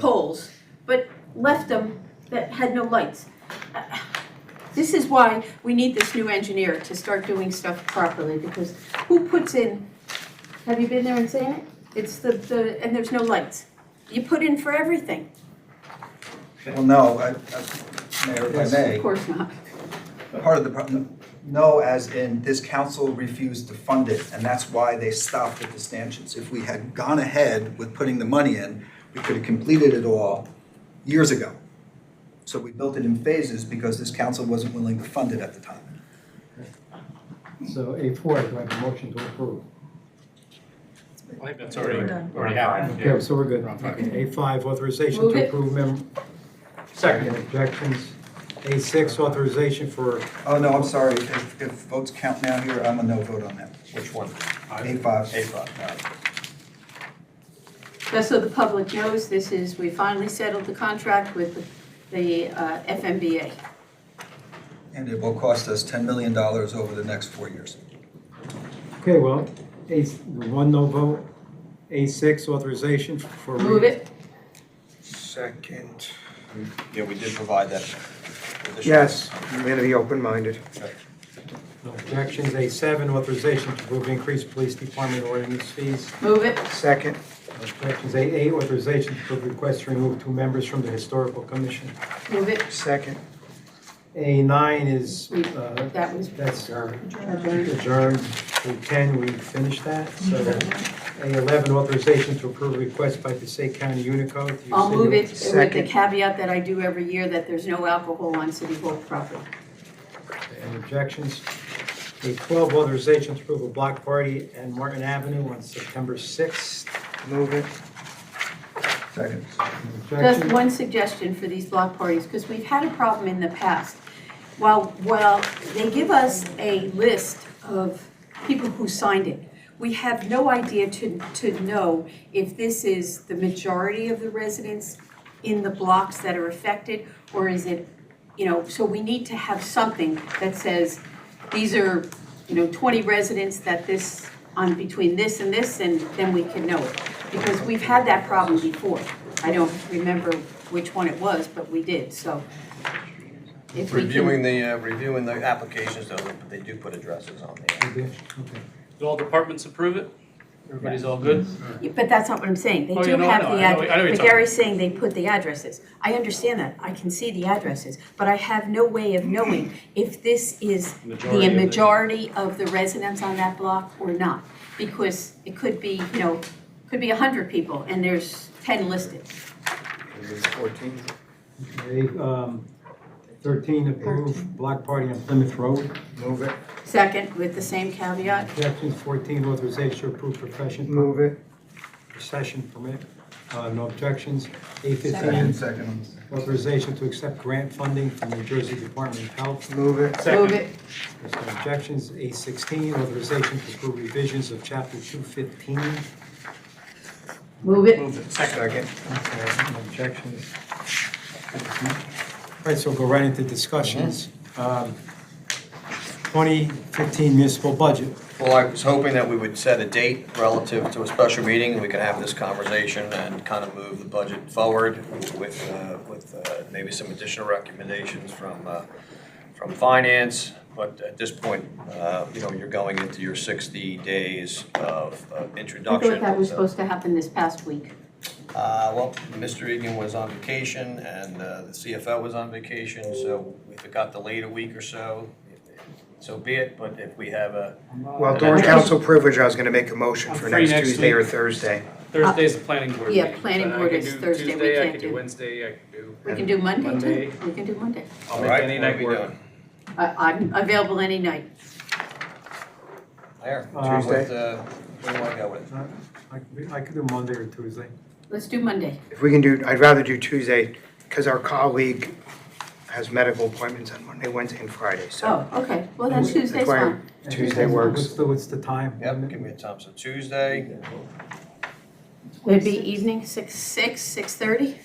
poles, but left them that had no lights. This is why we need this new engineer to start doing stuff properly, because who puts in, have you been there and seen it? It's the, the, and there's no lights. You put in for everything, Well, no, I, I, Mayor, if of I course not. may, part of the problem, no, as in this council refused to fund it, and that's why they stopped at the stanchions. If we had gone ahead with putting the money in, we could have completed it all years ago. So we built it in phases because this council wasn't willing to fund it at the time. So A four, do I have a motion to approve? I think that's We're already, done. already happened. Okay, so we're good. We're on five. A five, authorization Move to it. approve mem, Second. any objections. A six, authorization for, Oh, no, I'm sorry, if, if votes count now here, I'm a no vote on that. Which one? A five. A five. Just so the public knows, this is, we finally settled the contract with the- the uh, FMBA. And it will cost us ten million dollars over the next four years. okay, well, A, one no vote. A six, authorization for. Move it, Second. Yeah, we did provide that. additional- Yes, I'm going to be open-minded. No objections. A seven, authorization to approve increased police department ordinance fees. move it, Second, No objections. A eight, authorization to approve request to remove two members from the historical commission. move it. second, A nine is, uh, That was that's uh, adjourned. adjourned. A ten, we finished that, so. A eleven, authorization to approve request by Passaic County Unicode. to use I'll move it city- with the Second. caveat that I do every year, that there's no alcohol on City Hall property. Any objections? A twelve, authorization to approve a block party and Martin Avenue on September sixth. move it. Second. Just one suggestion for these block parties, because we've had a problem in the past. While, while they give us a list of people who signed it, we have no idea to, to know if this is the majority of the residents in the blocks that are affected, or is it, you know, so we need to have something that says, these are, you know, twenty residents that this, on between this and this, and then we can know it. Because we've had that problem before. I don't remember which one it was, but we did, so. if we can- Reviewing the, uh, reviewing the applications, though, they do put addresses on there. Okay. Did all departments approve it? Everybody's all good? Yeah, But that's not what I'm saying. They Oh, do yeah, no, have no, the I know- I know what address. you're But talking about. Gary's saying they put the addresses. I understand that. I can see the addresses, but I have no way of knowing if this is Majority the of the- majority of the residents on that block or not. Because it could be, you know, could be hundred people and there's ten listed. Fourteen. A, um, thirteen, approve block party on Plymouth Road. Move it, Second, with the same caveat, Objections, fourteen, authorization to approve profession, move it, procession permit. Uh, no objections. A Second, fifteen, second. authorization to accept grant funding from New Jersey Department of Health. move it, move it, There's no objections. A sixteen, authorization to approve revisions of chapter two fifteen. move it. Move it. Second. second. No objections. All right, so we'll go right into discussions. Um, twenty fifteen municipal budget. Well, I was hoping that we would set a date relative to a special meeting, and we could have this conversation and kind of move the budget forward with, uh, with uh, maybe some additional recommendations from, uh, from finance. But at this point, uh, you know, you're going into your 60 days of of I introduction. thought that was so- supposed to happen this past week. Uh, well, Mr. Egan was on vacation and uh, the CFO was on vacation, so if it got delayed a week or so, so be it, but if we have a, Well, during council privilege, I was going to make a motion I'm for free next next Tuesday or week. Thursday. Thursday's the planning board yeah, meeting. planning so I board can is do Thursday. We Tuesday, I can't can do- do Wednesday, I can do, We can do Monday too. Monday. We can do Monday. all I'll make right, any what are night we work. doing? I, I'm available any night. There, Uh, Tuesday, uh, where do I go with? it? I could- I could do Monday or Tuesday. Let's do Monday. If we can do, I'd rather do Tuesday because our colleague has medical appointments on Monday, Wednesday, and Friday, so. Oh, okay, well, that's That's Tuesday's why fine. Tuesday works. What's the, what's the time? Yep, give me a time, so Tuesday, It'd be evening, six, six, six thirty?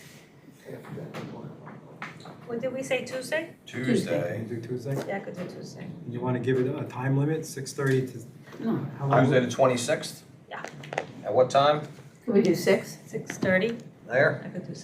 What did we say, Tuesday? Can Tuesday, you do Tuesday? Yeah, I could do Tuesday. You want to give it a time limit, six thirty to? No. How long? Tuesday the twenty-sixth? Yeah. At what time? Can we do six? Six thirty, There? I could do six.